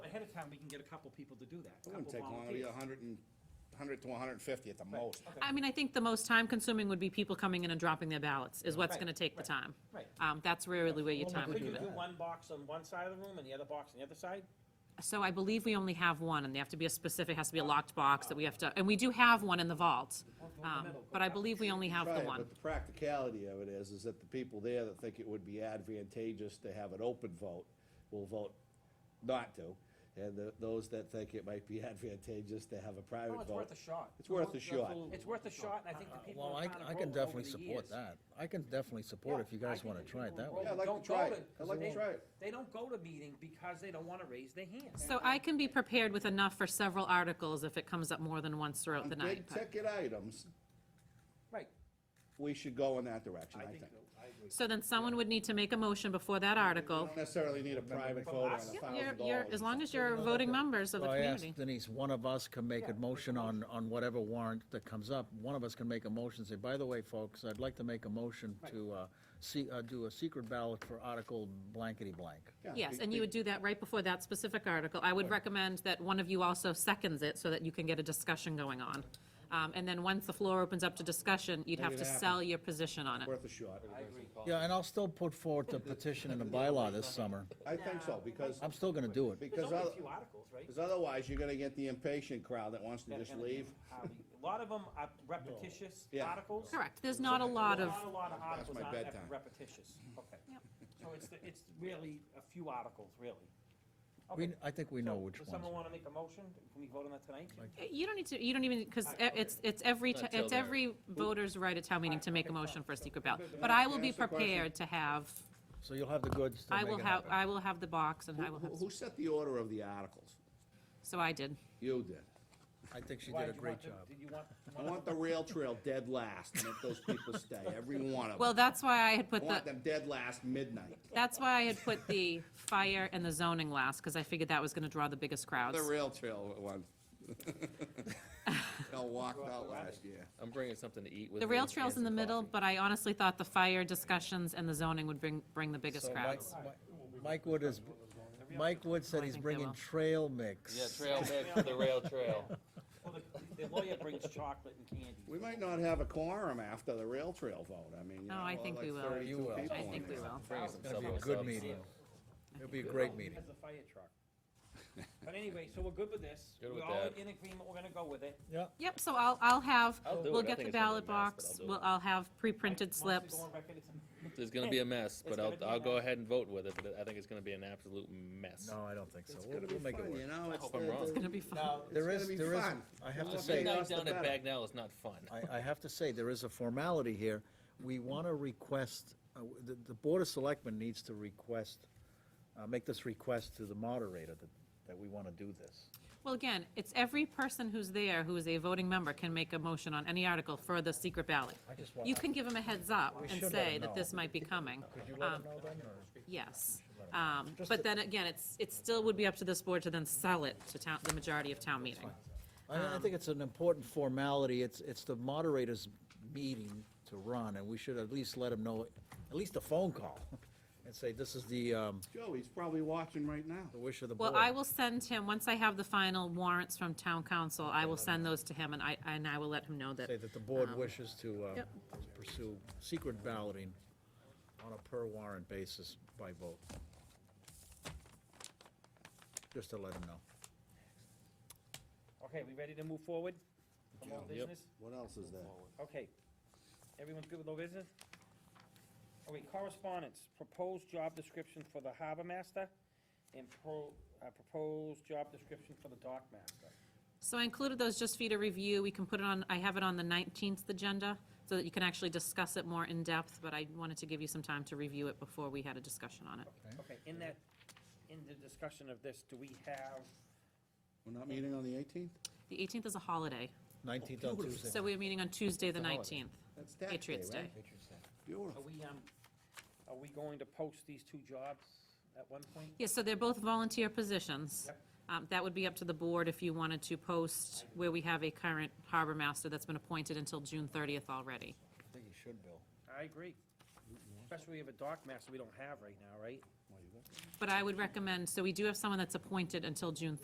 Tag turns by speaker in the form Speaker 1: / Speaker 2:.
Speaker 1: town, we can get a couple people to do that. a
Speaker 2: It wouldn't
Speaker 1: couple
Speaker 2: take long, it'd be
Speaker 1: volunteers.
Speaker 2: a hundred and, hundred to hundred and fifty at the most.
Speaker 3: I mean, I think the most time-consuming would be people coming in and dropping their ballots, is what's
Speaker 1: Right,
Speaker 3: gonna take the
Speaker 1: right,
Speaker 3: time.
Speaker 1: right.
Speaker 3: Um, that's really where your
Speaker 1: Well,
Speaker 3: time would
Speaker 1: Could
Speaker 3: be.
Speaker 1: you do one box on one side of the room and the other box on the other side?
Speaker 3: So I believe we only have one, and they have to be a specific, has to be a locked box that we have to, and we do have one in the vault. Um, but I believe we only have
Speaker 4: Try
Speaker 3: the
Speaker 4: it,
Speaker 3: one.
Speaker 4: But the practicality of it is, is that the people there that think it would be advantageous to have an open vote will vote not to. And the, those that think it might be advantageous to have a private
Speaker 1: Well,
Speaker 4: vote.
Speaker 1: Oh, it's worth a shot.
Speaker 4: It's worth a shot.
Speaker 1: It's worth a shot, and I think the people
Speaker 5: Well,
Speaker 1: in
Speaker 5: I,
Speaker 1: town have
Speaker 5: I
Speaker 1: grown
Speaker 5: can
Speaker 1: over
Speaker 5: definitely
Speaker 1: the
Speaker 5: support
Speaker 1: years.
Speaker 5: that. I can definitely support if you
Speaker 1: Yeah, I
Speaker 5: guys
Speaker 1: think
Speaker 5: wanna
Speaker 1: the
Speaker 5: try it
Speaker 1: people
Speaker 5: that
Speaker 1: who grow
Speaker 5: way.
Speaker 4: Yeah, I'd like to
Speaker 1: don't
Speaker 4: try
Speaker 1: go
Speaker 4: it. I'd like to
Speaker 1: they-
Speaker 4: try it.
Speaker 1: They don't go to meetings because they don't wanna raise their hands.
Speaker 3: So I can be prepared with enough for several articles if it comes up more than once throughout the night.
Speaker 4: Big
Speaker 3: but-
Speaker 4: ticket items,
Speaker 1: Right.
Speaker 4: we should go in that direction, I think.
Speaker 3: So then someone would need to make a motion before that article.
Speaker 4: Don't necessarily need a private vote on a
Speaker 1: us?
Speaker 3: You're,
Speaker 4: thousand
Speaker 3: you're,
Speaker 4: dollars.
Speaker 3: as long as you're voting members of the
Speaker 5: So I
Speaker 3: community.
Speaker 5: asked Denise, one of us can make a motion on, on whatever warrant that comes up. One of us can make a motion, say, by the way, folks, I'd like to make a motion to, uh, see, uh, do a secret ballot for Article blankety blank.
Speaker 4: Yeah,
Speaker 3: Yes,
Speaker 4: be-
Speaker 3: and you would do that right before that specific article. I would recommend that one of you also seconds it so that you can get a discussion going on. Um, and then once the floor opens up to discussion, you'd have
Speaker 4: it
Speaker 3: to
Speaker 4: happen.
Speaker 3: sell your position on it.
Speaker 4: Worth a shot.
Speaker 5: Yeah, and I'll still put forward the petition and the bylaw this summer.
Speaker 4: I think so, because,
Speaker 5: I'm still gonna do it.
Speaker 1: There's
Speaker 4: because,
Speaker 1: only a
Speaker 4: oth-
Speaker 1: few articles, right?
Speaker 4: 'cause otherwise, you're gonna get the impatient crowd that wants to
Speaker 1: that are
Speaker 4: just
Speaker 1: gonna be
Speaker 4: leave.
Speaker 1: highly- A lot of them are repetitious
Speaker 4: Yeah.
Speaker 1: articles.
Speaker 3: Correct, there's not a lot of,
Speaker 1: Not a lot of articles
Speaker 4: my
Speaker 1: aren't rep-
Speaker 4: bedtime.
Speaker 1: repetitious, okay.
Speaker 3: Yep.
Speaker 1: So it's, the- it's really a few articles, really.
Speaker 5: We,
Speaker 1: Okay.
Speaker 5: I think we know
Speaker 1: So,
Speaker 5: which
Speaker 1: Does
Speaker 5: ones.
Speaker 1: someone wanna make a motion? Can we vote on that tonight?
Speaker 3: you don't need to, you don't even, because
Speaker 1: Alright, okay.
Speaker 3: it's, it's every, ti-
Speaker 6: Until
Speaker 3: it's
Speaker 6: they're-
Speaker 3: every voter's right at town meeting
Speaker 1: Alright,
Speaker 3: to make a
Speaker 1: okay, fine.
Speaker 3: motion for a secret ballot. But I will be
Speaker 4: Ask the question.
Speaker 3: prepared to have,
Speaker 5: So you'll have the goods to
Speaker 3: I
Speaker 5: make
Speaker 3: will
Speaker 5: it
Speaker 3: have,
Speaker 5: happen.
Speaker 3: I will have the box and I
Speaker 4: Who,
Speaker 3: will have,
Speaker 4: who set the order of the articles?
Speaker 3: so I did.
Speaker 4: You did.
Speaker 5: I think she
Speaker 1: Why,
Speaker 5: did a
Speaker 1: you
Speaker 5: great
Speaker 1: want to-
Speaker 5: job.
Speaker 1: Did you want?
Speaker 4: I want the rail trail dead last, and let those people stay, every one of them.
Speaker 3: Well, that's why I had
Speaker 4: I
Speaker 3: put
Speaker 4: want
Speaker 3: the,
Speaker 4: them dead last midnight.
Speaker 3: that's why I had put the fire and the zoning last, because I figured that was gonna draw the biggest crowds.
Speaker 4: The rail trail one. They all walked out last year.
Speaker 6: I'm bringing something to eat with me.
Speaker 3: The rail
Speaker 6: and
Speaker 3: trail's in
Speaker 6: some
Speaker 3: the middle,
Speaker 6: coffee.
Speaker 3: but I honestly thought the fire discussions and the zoning would bring, bring the biggest
Speaker 5: So Mike-
Speaker 3: crowds.
Speaker 5: Mi- Mike Wood is, Mike Wood said
Speaker 3: I
Speaker 5: he's
Speaker 3: think they
Speaker 5: bringing
Speaker 3: will.
Speaker 5: trail mix.
Speaker 6: Yeah, trail mix for the rail trail.
Speaker 1: Well, the- The lawyer brings chocolate and candy.
Speaker 4: We might not have a quorum after the rail trail vote, I mean, you know,
Speaker 3: No, Oh, I
Speaker 4: we'll
Speaker 3: think
Speaker 4: have
Speaker 3: we
Speaker 4: like
Speaker 3: will.
Speaker 4: thirty-two
Speaker 5: You will.
Speaker 4: people
Speaker 3: I
Speaker 4: in
Speaker 3: think we
Speaker 4: there.
Speaker 3: will.
Speaker 6: Bringing some
Speaker 5: It's gonna be a
Speaker 6: subway
Speaker 5: good
Speaker 6: subs.
Speaker 5: meeting. It'll be a
Speaker 1: Good
Speaker 5: great
Speaker 1: old
Speaker 5: meeting.
Speaker 1: Has a fire truck. But anyway, so we're good with this.
Speaker 6: Good with
Speaker 1: We're all
Speaker 6: that.
Speaker 1: in agreement, we're gonna go with it.
Speaker 5: Yeah.
Speaker 3: Yep, so I'll, I'll have,
Speaker 6: I'll do
Speaker 3: we'll
Speaker 6: it. I
Speaker 3: get
Speaker 6: think
Speaker 3: the
Speaker 6: it's gonna be a
Speaker 3: ballot
Speaker 6: mess, but
Speaker 3: box,
Speaker 6: I'll do
Speaker 3: we'll,
Speaker 6: it.
Speaker 3: I'll have pre-printed
Speaker 1: Wants to go
Speaker 3: slips.
Speaker 1: on record, it's a-
Speaker 6: There's gonna be a mess,
Speaker 1: It's
Speaker 6: but
Speaker 1: gonna
Speaker 6: I'll,
Speaker 1: be a
Speaker 6: I'll go
Speaker 1: mess.
Speaker 6: ahead and vote with it, but I think it's gonna be an absolute mess.
Speaker 5: No, I don't think so.
Speaker 4: It's
Speaker 5: We'll,
Speaker 4: gonna
Speaker 5: we'll
Speaker 4: be
Speaker 5: make it
Speaker 4: fun,
Speaker 5: work.
Speaker 4: you know, it's
Speaker 6: hope I'm wrong.
Speaker 3: It's gonna be fun.
Speaker 5: There
Speaker 4: gonna
Speaker 5: is,
Speaker 4: be
Speaker 5: there is,
Speaker 4: fun.
Speaker 5: I have to
Speaker 4: Well,
Speaker 5: say,
Speaker 4: midnight
Speaker 6: Midnight
Speaker 4: us the
Speaker 6: down at
Speaker 4: better.
Speaker 6: Bagnell is not fun.
Speaker 5: I, I have to say, there is a formality here. We want to request, uh, w- the, the Board of Selectmen needs to request, uh, make this request to the moderator that, that we want to do this.
Speaker 3: Well, again, it's every person who's there who is a voting member can make a motion on any article for the secret ballot.
Speaker 5: I just want-
Speaker 3: You can give them a heads up
Speaker 5: should
Speaker 3: and
Speaker 5: let
Speaker 3: say
Speaker 5: them
Speaker 3: that
Speaker 5: know.
Speaker 3: this might be coming. Um,
Speaker 5: Could you let them know then, or?
Speaker 3: Yes, um,
Speaker 5: Just
Speaker 3: but
Speaker 5: to-
Speaker 3: then again, it's, it still would be up to this board to then sell it to town, the majority of town meeting.
Speaker 5: I, I
Speaker 3: Um,
Speaker 5: think it's an important formality. It's, it's the moderator's meeting to run, and we should at least let him know, at least a phone call, and say, this is the, um,
Speaker 4: Joe, he's probably watching right now.
Speaker 5: the wish of the board.
Speaker 3: Well, I will send him, once I have the final warrants from town council, I will send those to him and I, and I will let him know that.
Speaker 5: Say that the board
Speaker 3: um,
Speaker 5: wishes to, uh,
Speaker 3: yep.
Speaker 5: pursue secret balloting on a per warrant basis by vote. Just to let them know.
Speaker 1: Okay, we ready to move forward? From old
Speaker 4: Yep.
Speaker 1: business?
Speaker 4: What else is there?
Speaker 1: Okay. Everyone's good with no business? Okay, correspondence, proposed job description for the harbor master and pro, uh, proposed job description for the dock master.
Speaker 3: So I included those just for you to review. We can put it on, I have it on the 19th agenda so that you can actually discuss it more in depth, but I wanted to give you some time to review it before we had a discussion on it.
Speaker 1: Okay, in that, in the discussion of this, do we have,
Speaker 4: We're not meeting on the eighteenth?
Speaker 3: The 18th is a holiday,
Speaker 5: Nineteenth on Tuesday.
Speaker 3: so we're meeting on Tuesday, the 19th.
Speaker 4: That's Tax Day,
Speaker 3: Patriots Day.
Speaker 4: right? Beautiful.
Speaker 1: are we, um, are we going to post these two jobs at one point?
Speaker 3: Yes, so they're both volunteer positions.
Speaker 1: Yep.
Speaker 3: Um, That would be up to the board if you wanted to post where we have a current harbor master that's been appointed until June 30th already.
Speaker 5: I think you should, Bill.
Speaker 1: I agree. Especially we have a dock master we don't have right now, right?
Speaker 3: But I would recommend, so we do have someone that's appointed until June